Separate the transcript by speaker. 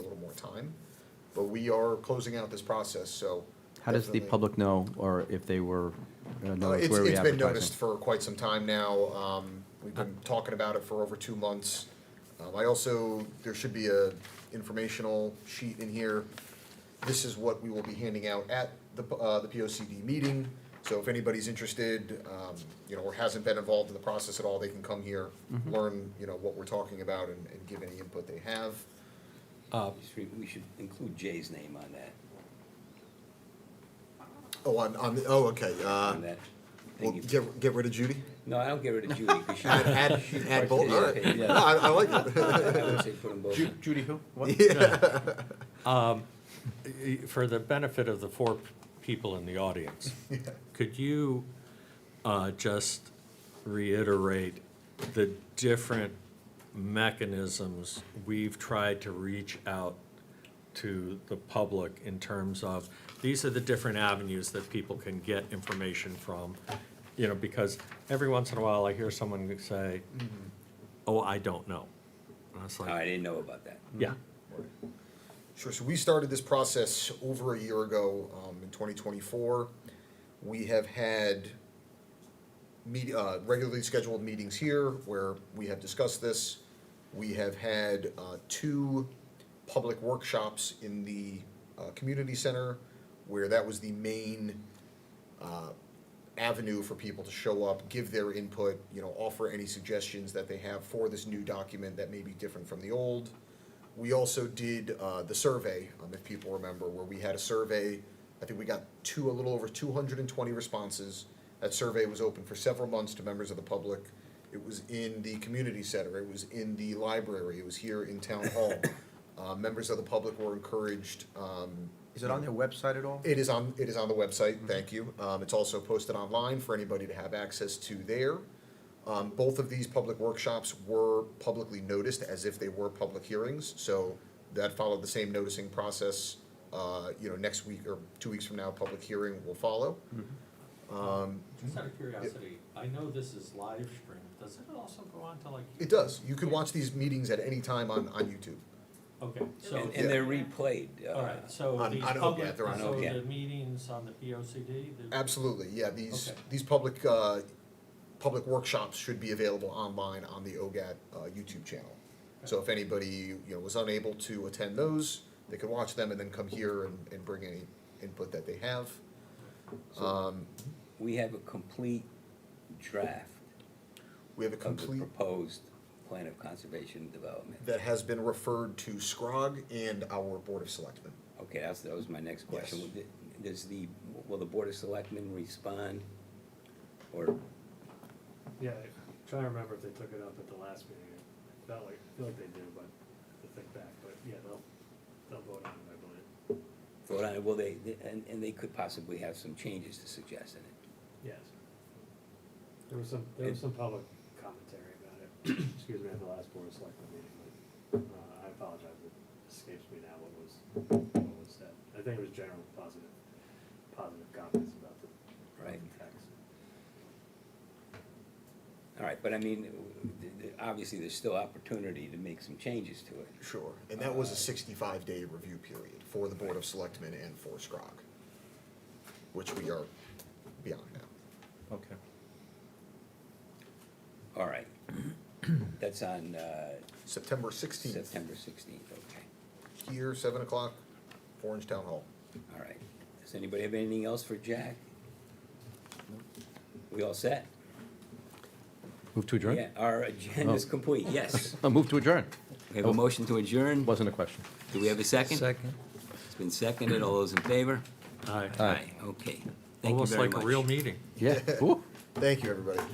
Speaker 1: time, but we are closing out this process, so.
Speaker 2: How does the
Speaker 1: definitely-
Speaker 2: public know, or if they were, uh,
Speaker 1: Uh,
Speaker 2: know
Speaker 1: It's,
Speaker 2: where we
Speaker 1: it's been noticed
Speaker 2: advertising?
Speaker 1: for quite some time now. Um, we've been talking about it for over two months. Um, I also, there should be a informational sheet in here. This is what we will be handing out at the, p- uh, the P O C D meeting. So if anybody's interested, um, you know, or hasn't been involved in the process at all, they can come here,
Speaker 2: Mm-hmm.
Speaker 1: learn, you know, what we're talking about and, and give any input they have.
Speaker 3: Just re- We should include Jay's name on that,
Speaker 1: Oh, on, on, the- oh, okay, uh,
Speaker 3: on that.
Speaker 1: well,
Speaker 3: thing you-
Speaker 1: get, get rid of Judy?
Speaker 3: No, I don't get rid of Judy, because she.
Speaker 1: Add, add,
Speaker 3: she
Speaker 1: add both, all right.
Speaker 3: participated.
Speaker 1: No, I, I like it.
Speaker 3: I would say put them both.
Speaker 4: Ju-
Speaker 3: in.
Speaker 4: Judy who? What?
Speaker 1: Yeah.
Speaker 5: Y- For the benefit of the four people in the audience, could you uh, just reiterate the different mechanisms we've tried to reach out to the public in terms of, these are the different avenues that people can get information from? You know, because every once in a while I hear someone say, oh, I don't know. And I was
Speaker 3: Oh,
Speaker 5: like,
Speaker 3: I didn't know about that.
Speaker 5: yeah,
Speaker 1: Sure, so we started this process over a year ago, um, in twenty twenty-four. We have had meet, uh, regularly scheduled meetings here where we have discussed this. We have had, uh, two public workshops in the, uh, community center where that was the main, uh, avenue for people to show up, give their input, you know, offer any suggestions that they have for this new document that may be different from the old. We also did uh, the survey, um, if people remember, where we had a survey. I think we got two, a little over 220 responses. That survey was open for several months to members of the public. It was in the community center, it was in the library, it was here in town hall. Uh, members of the public were encouraged um,
Speaker 4: Is it on their website at all?
Speaker 1: it is on, it is on the website, thank you. Um, it's also posted online for anybody to have access to there. Um, both of these public workshops were publicly noticed as if they were public hearings, so that followed the same noticing process. Uh, you know, next week or two weeks from now, public hearing will follow.
Speaker 5: Just out of curiosity, I know this is live streamed, does it also go on to like?
Speaker 1: It does, you can watch these meetings at any time on, on YouTube.
Speaker 5: Okay, so,
Speaker 3: And, and they're replayed. uh,
Speaker 5: all right, so
Speaker 1: On-
Speaker 5: these
Speaker 1: on Oak, yeah,
Speaker 5: public,
Speaker 1: they're on
Speaker 5: so
Speaker 3: Oak, yeah.
Speaker 5: the meetings on the P O C D?
Speaker 1: Absolutely, yeah, these,
Speaker 5: Okay.
Speaker 1: these public, uh, public workshops should be available online on the OGAT, uh, YouTube channel. So if anybody, you know, was unable to attend those, they could watch them and then come here and, and bring any input that they have. Um,
Speaker 3: We have a complete draft
Speaker 1: we have a
Speaker 3: of the
Speaker 1: complete,
Speaker 3: proposed plan of conservation and development.
Speaker 1: that has been referred to SCROG and our Board of Selectmen.
Speaker 3: Okay, that's, that was my next question.
Speaker 1: Yes.
Speaker 3: Would the- Does the, will the Board of Selectmen respond? Or,
Speaker 6: Yeah, I'm trying to remember if they took it up at the last meeting. I felt like, I feel like they did, but to think back, but yeah, they'll, they'll vote on it, I believe.
Speaker 3: vote on it? will they, and, and they could possibly have some changes to suggest in it?
Speaker 6: Yes. There was some, there was some public commentary about it, excuse me, at the last Board of Selectmen meeting, but, uh, I apologize, it escapes me now what was, what was said. I think it was general positive, positive comments about the, about
Speaker 3: Right.
Speaker 6: the text.
Speaker 3: All right, but I mean, th- th- obviously, there's still opportunity to make some changes to it.
Speaker 1: Sure. And that was a sixty-five day review period for the Board of Selectmen and for SCROG, which we are beyond now.
Speaker 2: Okay.
Speaker 3: All right. That's on uh,
Speaker 1: September sixteenth.
Speaker 3: September 16th, okay.
Speaker 1: here, seven o'clock, Orange Town Hall.
Speaker 3: All right. Does anybody have anything else for Jack? We all set?
Speaker 2: Move to adjourn?
Speaker 3: Yeah, our agenda is
Speaker 2: Oh.
Speaker 3: complete, yes.
Speaker 2: Uh, Move to adjourn.
Speaker 3: We have a motion to adjourn.
Speaker 2: Wasn't a question.
Speaker 3: Do we have a second? Second. It's been seconded. All those in favor?
Speaker 5: Aye.
Speaker 2: Aye.
Speaker 3: Okay. Thank you
Speaker 5: Almost
Speaker 3: very
Speaker 5: like
Speaker 3: much.
Speaker 5: a real meeting.
Speaker 2: Yeah. Ooh.
Speaker 1: Thank you, everybody.